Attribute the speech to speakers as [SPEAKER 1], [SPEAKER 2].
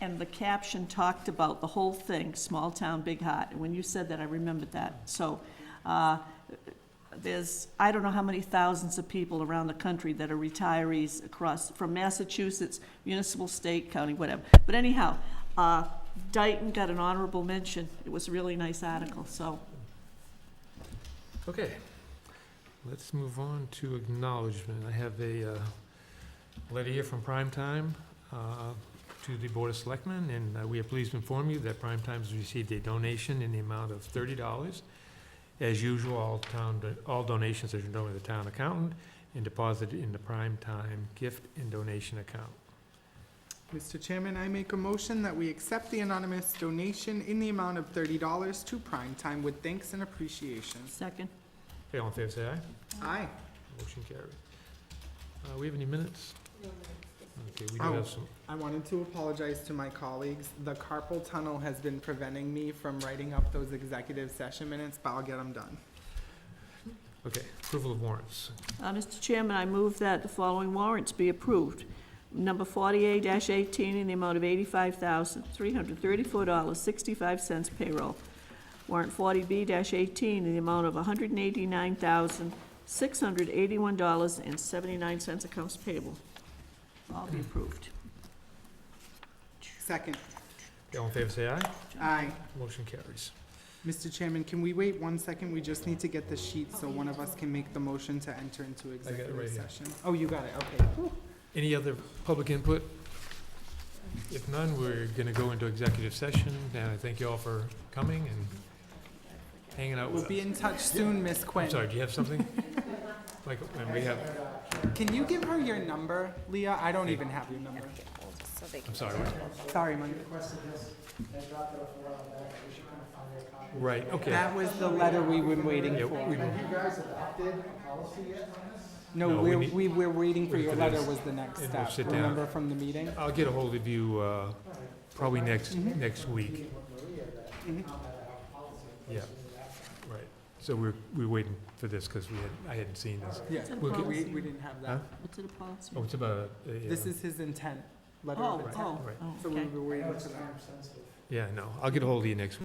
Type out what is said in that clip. [SPEAKER 1] and the caption talked about the whole thing, small town, big heart. And when you said that, I remembered that. So, uh, there's, I don't know how many thousands of people around the country that are retirees across, from Massachusetts, municipal, state, county, whatever. But anyhow, uh, Dayton got an honorable mention. It was a really nice article, so.
[SPEAKER 2] Okay, let's move on to acknowledgement. I have a uh, letter here from Prime Time uh, to the Board of Selectmen, and uh, we are pleased to inform you that Prime Time has received a donation in the amount of thirty dollars. As usual, all town, all donations are done with the town accountant and deposited in the Prime Time gift and donation account.
[SPEAKER 3] Mr. Chairman, I make a motion that we accept the anonymous donation in the amount of thirty dollars to Prime Time with thanks and appreciation.
[SPEAKER 1] Second.
[SPEAKER 2] Okay, all in favor, say aye.
[SPEAKER 3] Aye.
[SPEAKER 2] Motion carried. Uh, We have any minutes? Okay, we do
[SPEAKER 3] Oh.
[SPEAKER 2] have some.
[SPEAKER 3] I wanted to apologize to my colleagues. The carpal tunnel has been preventing me from writing up those executive session minutes, but I'll get them done.
[SPEAKER 2] Okay, approval of warrants.
[SPEAKER 1] Uh, Mr. Chairman, I move that the following warrants be approved. Number forty-eight eighteen in the amount of eighty-five thousand, three hundred thirty-four dollars, sixty-five cents payroll. Warrant forty B eighteen in the amount of hundred and eighty-nine thousand, six hundred eighty-one dollars and seventy-nine cents accounts payable. All be approved.
[SPEAKER 3] Second.
[SPEAKER 2] Okay, All in favor, say aye.
[SPEAKER 3] Aye.
[SPEAKER 2] Motion carries.
[SPEAKER 3] Mr. Chairman, can we wait one second? We just need to get the sheet so one of us can make the motion to enter into
[SPEAKER 2] right
[SPEAKER 3] executive
[SPEAKER 2] here.
[SPEAKER 3] session. Oh, you got it, okay.
[SPEAKER 2] Any other public input? If none, we're going to go into executive session, and I thank you all for coming and hanging out with
[SPEAKER 3] We'll
[SPEAKER 2] us.
[SPEAKER 3] be in touch soon, Miss Quinn.
[SPEAKER 2] I'm sorry, do you have something? Michael, and we have,
[SPEAKER 3] Can you give her your number, Leah? I don't even have your number.
[SPEAKER 2] I'm sorry, what?
[SPEAKER 3] Sorry, Mike.
[SPEAKER 2] right, okay.
[SPEAKER 3] That was the letter we were waiting
[SPEAKER 2] Yeah,
[SPEAKER 3] for.
[SPEAKER 2] we-
[SPEAKER 3] No,
[SPEAKER 2] No, we
[SPEAKER 3] we're,
[SPEAKER 2] need-
[SPEAKER 3] we were waiting for
[SPEAKER 2] we
[SPEAKER 3] your
[SPEAKER 2] could
[SPEAKER 3] letter
[SPEAKER 2] just-
[SPEAKER 3] was the next
[SPEAKER 2] and we'll
[SPEAKER 3] step,
[SPEAKER 2] sit down.
[SPEAKER 3] remember from the meeting?
[SPEAKER 2] I'll get a hold of you uh, probably next,
[SPEAKER 3] Mm-hmm.
[SPEAKER 2] next week. Mm-hmm. Yeah, right. So we're, we're waiting for this because we had, I hadn't seen this.
[SPEAKER 3] Yeah,
[SPEAKER 1] It's in
[SPEAKER 2] We'll get-
[SPEAKER 3] we,
[SPEAKER 1] policy.
[SPEAKER 3] we didn't have
[SPEAKER 2] Huh?
[SPEAKER 3] that.
[SPEAKER 1] What's it policy?
[SPEAKER 2] Oh, it's about, uh, yeah.
[SPEAKER 3] This is his intent, letter
[SPEAKER 1] Oh,
[SPEAKER 3] of intent.
[SPEAKER 1] oh,
[SPEAKER 2] right.
[SPEAKER 1] oh,
[SPEAKER 3] So we
[SPEAKER 1] okay.
[SPEAKER 3] were waiting for that.
[SPEAKER 2] yeah, no, I'll get a hold of you next week.